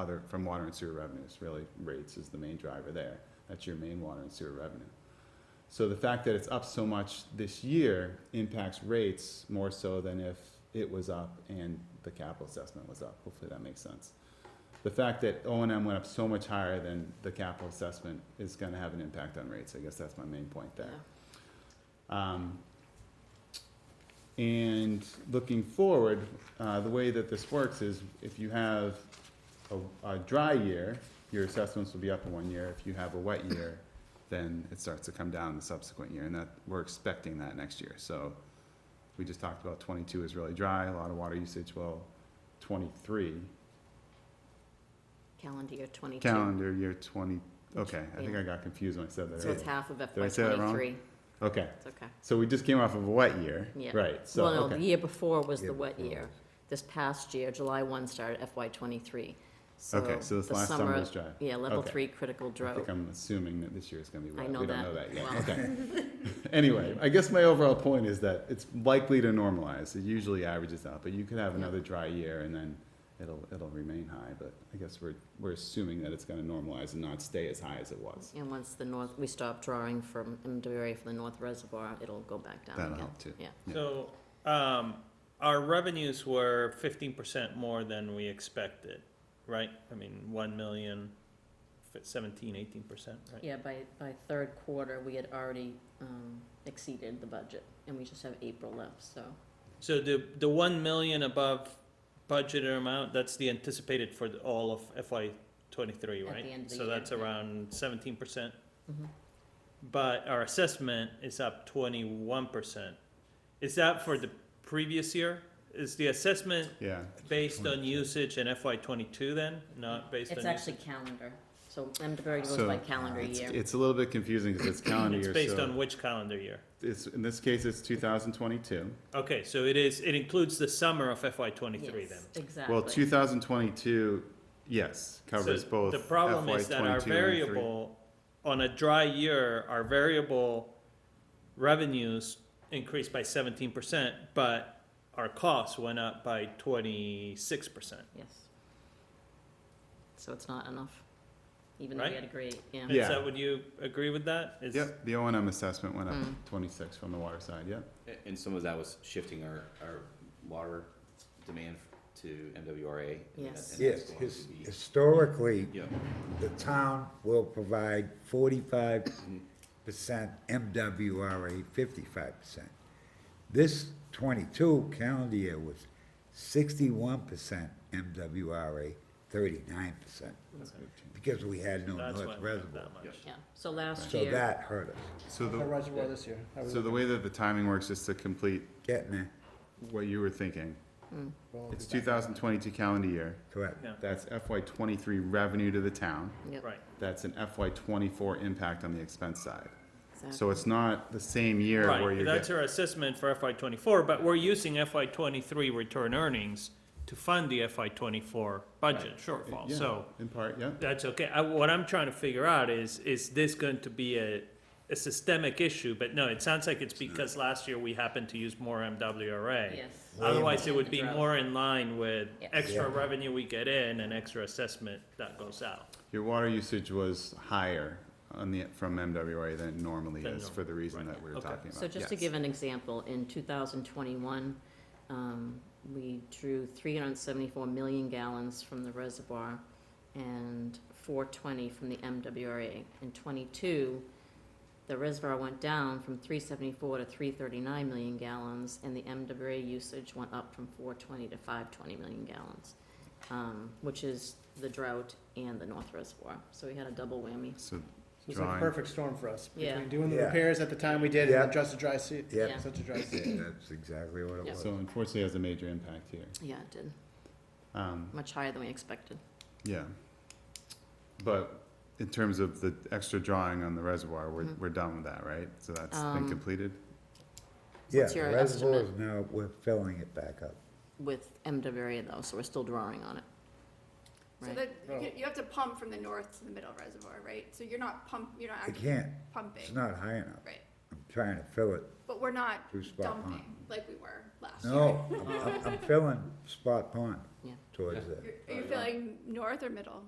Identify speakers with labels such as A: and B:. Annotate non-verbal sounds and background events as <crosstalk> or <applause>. A: other, from water and sewer revenues, really rates is the main driver there. That's your main water and sewer revenue. So the fact that it's up so much this year impacts rates more so than if it was up and the capital assessment was up. Hopefully that makes sense. The fact that O and M went up so much higher than the capital assessment is gonna have an impact on rates. I guess that's my main point there. Um, and looking forward, uh, the way that this works is if you have a, a dry year, your assessments will be up in one year. If you have a wet year, then it starts to come down the subsequent year, and that, we're expecting that next year. So we just talked about twenty-two is really dry, a lot of water usage. Well, twenty-three,
B: Calendar year twenty-two.
A: calendar year twenty, okay, I think I got confused when I said that
B: So it's
A: earlier.
B: half of
A: I
B: FY
A: say that wrong?
B: twenty-three.
A: Okay,
B: It's okay.
A: so we just came off of a wet year,
B: Yeah.
A: right, so,
B: Well, no, the
A: okay,
B: year before was
C: Year
B: the wet
C: before
B: year.
C: was-
B: This past year, July one started FY twenty-three.
A: okay, so this
B: the
A: last summer was dry.
B: Yeah, level
A: Okay.
B: three critical
A: I think
B: drought.
A: I'm assuming that this year is gonna be
B: I
A: wet.
B: know
A: We don't
B: that.
A: know that yet,
B: Well-
A: okay.
B: <laughs>
A: Anyway, I guess my overall point is that it's likely to normalize. It usually averages out, but you could have
B: Yeah.
A: another dry year and then it'll, it'll remain high, but I guess we're, we're assuming that it's gonna normalize and not stay as high as it was.
B: And once the north, we stop drawing from, and dairy from the north reservoir, it'll go back down again.
A: That'll help too.
B: Yeah.
A: Yeah.
D: So, um, our revenues were fifteen percent more than we expected, right? I mean, one million, f- seventeen, eighteen percent, right?
B: Yeah, by, by third quarter, we had already, um, exceeded the budget, and we just have April left, so.
D: So the, the one million above budgeted amount, that's the anticipated for the- all of FY twenty-three,
B: At
D: right?
B: the end of the
D: So
B: year,
D: that's
B: yeah.
D: around seventeen percent.
B: Mhm.
D: But our assessment is up twenty-one percent. Is that for the previous year? Is the assessment
A: Yeah,
D: Based on usage in FY twenty-two then, not based on?
B: It's
D: usage?
B: actually calendar, so Emdenburg goes
A: So, uh,
B: by calendar
A: it's,
B: year.
A: it's a little bit confusing because
B: <coughs>
A: it's calendar
D: It's
A: year,
D: based
A: so
D: on which calendar year?
A: it's, in this case, it's two thousand twenty-two.
D: Okay, so it is, it includes the summer of FY twenty-three
B: Yes,
D: then?
B: Exactly.
A: Well, two thousand twenty-two, yes, covers
D: So
A: both
D: The problem
A: FY
D: is that our
A: 22 and 23.
D: variable, on a dry year, our variable revenues increased by seventeen percent, but our costs went up by twenty-six percent.
B: Yes. So it's not enough, even though we
D: Right?
B: had a great, yeah.
A: Yeah.
D: Is that, would you agree with that? Is-
A: Yep, the O and M assessment went up
B: Mm.
A: twenty-six from the water side, yep.
C: A- And some of that was shifting our, our water demand to MWRA. and that-
B: Yes.
C: and that's
E: Yes,
C: going to
E: his-
C: be-
E: historically,
C: Yeah,
E: the town will provide forty-five percent MWRA, fifty-five percent. This twenty-two calendar year was sixty-one percent MWRA, thirty-nine percent, because we had Oh, no
D: That's why
E: North
D: it went up
E: Reservoir.
D: that much.
B: Yeah, so last
E: So
B: year,
E: that hurt us,
A: So
F: The
A: the,
F: reservoir this year. How we
A: so the
F: looking?
A: way that the timing works, just to complete
E: getting there,
A: what you were thinking,
B: Hmm.
F: Well,
A: it's two thousand twenty-two calendar year.
E: correct.
D: Yeah,
A: That's FY twenty-three revenue to the town.
B: yep,
D: right.
A: That's an FY twenty-four impact on the expense side. So
B: exactly.
A: it's not the same year where
D: Right,
A: you're
D: that's
A: getting,
D: our assessment for FY twenty-four, but we're using FY twenty-three return earnings to fund the FY twenty-four budget shortfall,
A: yeah.
D: so
A: in part, yeah.
D: that's okay. I, what I'm trying to figure out is, is this going to be a, a systemic issue? But no, it sounds like it's because last year we happened to use more MWRA.
B: Yes.
D: Otherwise, it would be
B: Drought.
D: more in line with
B: Yes.
D: extra
E: Yeah.
D: revenue we get in and extra assessment that goes out.
A: Your water usage was higher on the, from MWA than it normally
D: Than
A: is
D: normal,
A: for the reason
D: right.
A: that we were
D: Okay.
A: talking about.
B: So just to
A: Yes.
B: give an example, in two thousand twenty-one, um, we drew three hundred and seventy-four million gallons from the reservoir and four twenty from the MWRA. In twenty-two, the reservoir went down from three seventy-four to three thirty-nine million gallons, and the MWRA usage went up from four twenty to five twenty million gallons, um, which is the drought and the North Reservoir, so we had a double whammy.
A: So
F: So It's like
A: drawing.
F: a perfect storm for us.
B: Yeah.
F: Between doing the
E: Yeah.
F: repairs at the time we did and
E: Yeah.
F: then just a dry se-
E: Yeah.
B: Yeah.
F: such a dry
E: Yeah,
F: se-
E: That's exactly what it
B: Yeah.
E: was.
A: So unfortunately, it has a major impact here.
B: Yeah, it did,
A: Um,
B: much higher than we expected.
A: Yeah. But in terms of the extra drawing on the reservoir, we're,
B: Mhm.
A: we're done with that, right? So that's been
B: Um,
A: completed?
E: Yeah,
B: what's
E: the
B: your
E: reservoir is
B: estimate?
E: now, we're filling it back up.
B: with MWRA though, so we're still drawing on it.
G: So
B: Right.
G: that, you
F: Oh.
G: can- you have to pump from the north to the middle reservoir, right? So you're not pump, you're not
E: I
G: actually
E: can't, it's
G: pumping,
E: not high enough.
G: right?
E: I'm trying to fill it
G: But we're not
E: through spot pond.
G: dumping like we were last year.
E: No, I'm- I'm, I'm filling spot pond.
B: Yeah.
E: towards that.
G: You're- Are you feeling north or middle?